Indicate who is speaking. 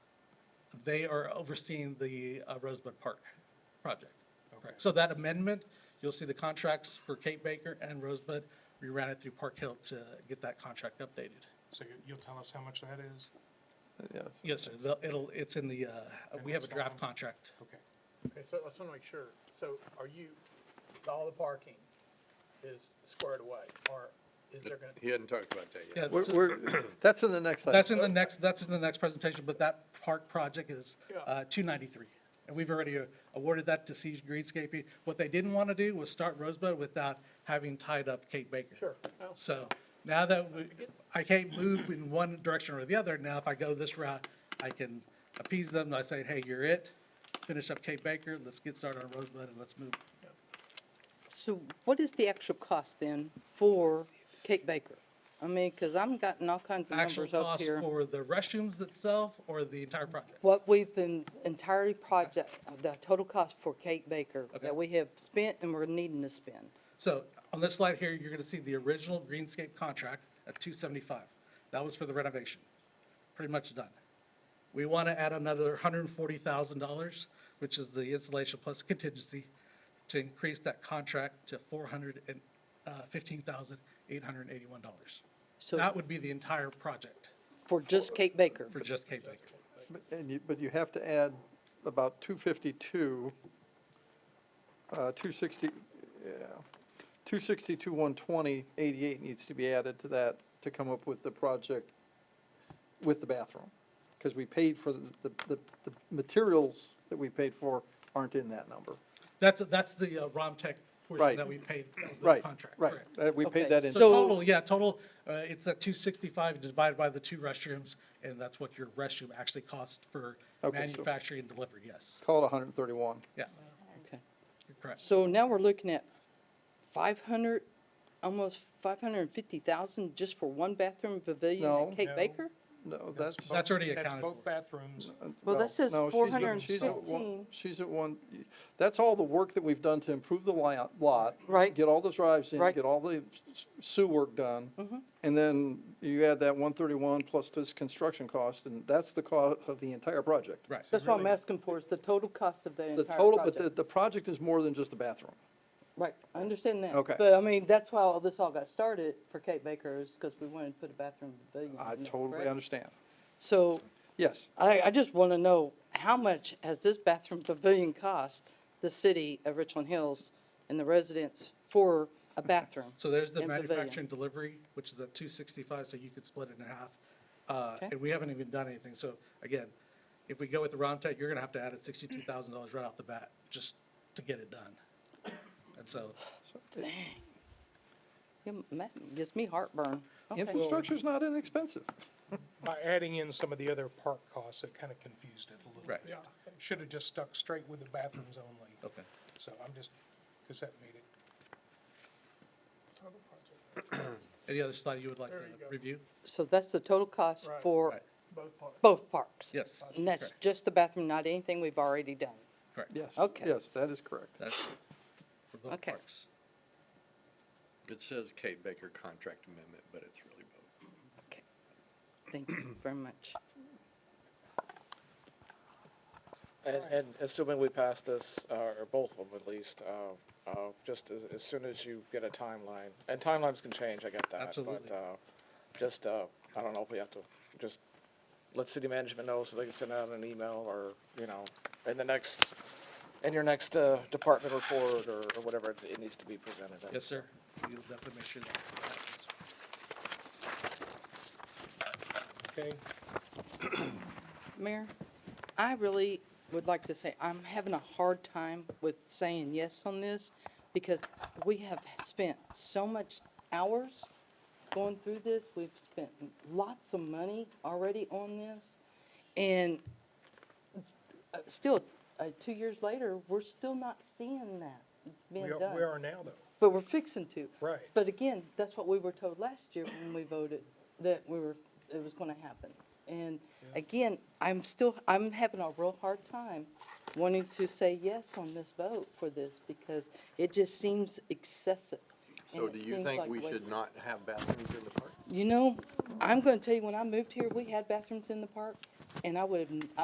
Speaker 1: They are overseeing the uh, Rosebud Park project. So that amendment, you'll see the contracts for Kate Baker and Rosebud. We ran it through Park Hill to get that contract updated.
Speaker 2: So you- you'll tell us how much that is?
Speaker 3: Yes.
Speaker 1: Yes, sir. The- It'll, it's in the, uh, we have a draft contract.
Speaker 2: Okay.
Speaker 4: Okay, so I just want to make sure, so are you, all the parking is squared away, or is there going to,
Speaker 5: He hadn't talked about that
Speaker 1: Yeah,
Speaker 5: yet.
Speaker 3: We're,
Speaker 1: so
Speaker 3: we're, that's in the next item.
Speaker 1: that's in the next, that's in the next presentation, but that park project is
Speaker 4: Yeah.
Speaker 1: uh, 293. And we've already uh, awarded that to Siege Greenscaping. What they didn't want to do was start Rosebud without having tied up Kate Baker.
Speaker 4: Sure. No.
Speaker 1: So now that we- I can't move in one direction or the other, now if I go this route, I can appease them. and I say, hey, you're it. Finish up Kate Baker, let's get started on Rosebud and let's move.
Speaker 6: So what is the actual cost then for Cake Baker? I mean, because I'm gotten all kinds of
Speaker 1: Actual
Speaker 6: numbers up
Speaker 1: cost
Speaker 6: here.
Speaker 1: for the restrooms itself or the entire project?
Speaker 6: What we've been entirely project, the total cost for Cake Baker
Speaker 1: Okay.
Speaker 6: that we have spent and we're needing to spend.
Speaker 1: So on this slide here, you're gonna see the original greenscape contract at two seventy-five. That was for the renovation, pretty much done. We want to add another hundred and forty thousand dollars, which is the installation plus contingency, to increase that contract to four hundred and uh, fifteen thousand eight hundred and eighty-one dollars.
Speaker 6: So-
Speaker 1: That would be the entire project
Speaker 6: For just Cake Baker.
Speaker 1: for just Cape Baker.
Speaker 3: But- And you, but you have to add about two fifty-two, uh, two sixty, yeah, two sixty-two, one twenty, eighty-eight needs to be added to that to come up with the project with the bathroom. Because we paid for the, the, the, the materials that we paid for aren't in that number.
Speaker 1: That's, that's the uh, ROMTech portion
Speaker 3: Right.
Speaker 1: that we paid, that was the
Speaker 3: Right,
Speaker 1: contract,
Speaker 3: right.
Speaker 1: correct.
Speaker 3: Uh, we paid
Speaker 6: Okay,
Speaker 3: that in.
Speaker 1: So
Speaker 6: So-
Speaker 1: total, yeah, total, uh, it's at two sixty-five divided by the two restrooms, and that's what your restroom actually costs for
Speaker 3: Okay, so-
Speaker 1: manufacturing and delivery, yes.
Speaker 3: Call it hundred and thirty-one.
Speaker 1: Yeah,
Speaker 6: Okay.
Speaker 1: you're correct.
Speaker 6: So now we're looking at five hundred, almost five hundred and fifty thousand just for one bathroom pavilion
Speaker 3: No.
Speaker 6: at
Speaker 2: No.
Speaker 6: Cake Baker?
Speaker 3: No, that's.
Speaker 2: both-
Speaker 1: That's already
Speaker 2: That's
Speaker 1: accounted
Speaker 2: both
Speaker 1: for.
Speaker 2: bathrooms.
Speaker 6: Well, that says
Speaker 3: no, she's looking- she's at one-
Speaker 6: 415.
Speaker 3: She's at one, that's all the work that we've done to improve the li- lot.
Speaker 6: Right.
Speaker 3: Get all the drives in,
Speaker 6: Right. Mm-hmm.
Speaker 3: get all the s- sewer work done. And then you add that one thirty-one plus this construction cost, and that's the cost of the entire project.
Speaker 1: Right.
Speaker 6: That's what I'm asking for, is the total cost of the
Speaker 3: The
Speaker 6: entire project.
Speaker 3: total, but the, the project is more than just the bathroom.
Speaker 6: Right, I understand that.
Speaker 3: Okay.
Speaker 6: But I mean, that's why all this all got started for Kate Baker is because we wanted to put a bathroom pavilion.
Speaker 3: I
Speaker 6: in there,
Speaker 3: totally
Speaker 6: correct?
Speaker 3: understand.
Speaker 6: So
Speaker 3: Yes,
Speaker 6: I, I just want to know, how much has this bathroom pavilion cost the city of Richland Hills and the residents for a bathroom?
Speaker 1: So there's the
Speaker 6: and pavilion?
Speaker 1: manufacturing delivery, which is at two sixty-five, so you could split it in half. Uh,
Speaker 6: Okay.
Speaker 1: and we haven't even done anything, so again, if we go with the Romtech, you're gonna have to add at sixty-two thousand dollars right off the bat, just to get it done. And so,
Speaker 6: Yeah, That gives me heartburn. Okay.
Speaker 3: infrastructure's not inexpensive.
Speaker 2: By adding in some of the other park costs, it kind of confused it a little
Speaker 1: Right.
Speaker 2: bit. Should have just stuck straight with the bathrooms only.
Speaker 1: okay.
Speaker 2: So I'm just, because that made it.
Speaker 1: Any other slide you would like to review?
Speaker 6: So that's the total cost
Speaker 4: Right.
Speaker 6: for
Speaker 1: Right.
Speaker 4: both parts?
Speaker 6: both parks?
Speaker 1: Yes.
Speaker 6: And that's
Speaker 1: correct,
Speaker 6: just the bathroom, not anything we've already done.
Speaker 1: Correct.
Speaker 3: Yes.
Speaker 6: Okay.
Speaker 3: Yes, that is correct.
Speaker 1: That's for both
Speaker 6: Okay.
Speaker 1: parks.
Speaker 5: It says Kate Baker contract amendment, but it's really both.
Speaker 6: Thank you very much.
Speaker 7: And, and assuming we pass this, uh, or both of them at least, uh, uh, just as, as soon as you get a timeline, and timelines can change, I get that.
Speaker 1: Absolutely.
Speaker 7: But, uh, just, uh, I don't know if we have to, just let city management know so they can send out an email or, you know, in the next, in your next, uh, department report or, or whatever, it- it needs to be presented. in.
Speaker 1: Yes, sir. We'll definitely make sure that happens.
Speaker 2: Okay,
Speaker 6: Mayor, I really would like to say, I'm having a hard time with saying yes on this because we have spent so much hours going through this. We've spent lots of money already on this. And uh, still, uh, two years later, we're still not seeing that being
Speaker 2: we
Speaker 6: done.
Speaker 2: are, we are now though.
Speaker 6: But we're fixing to.
Speaker 2: Right.
Speaker 6: But again, that's what we were told last year when we voted, that we were, it was gonna happen. And again, I'm still, I'm having a real hard time wanting to say yes on this vote for this because it just seems excessive.
Speaker 5: So
Speaker 6: and
Speaker 5: do
Speaker 6: it
Speaker 5: you
Speaker 6: seems
Speaker 5: think
Speaker 6: like
Speaker 5: we
Speaker 6: waste-
Speaker 5: should not have bathrooms in the park?
Speaker 6: You know, I'm gonna tell you, when I moved here, we had bathrooms in the park and I would have,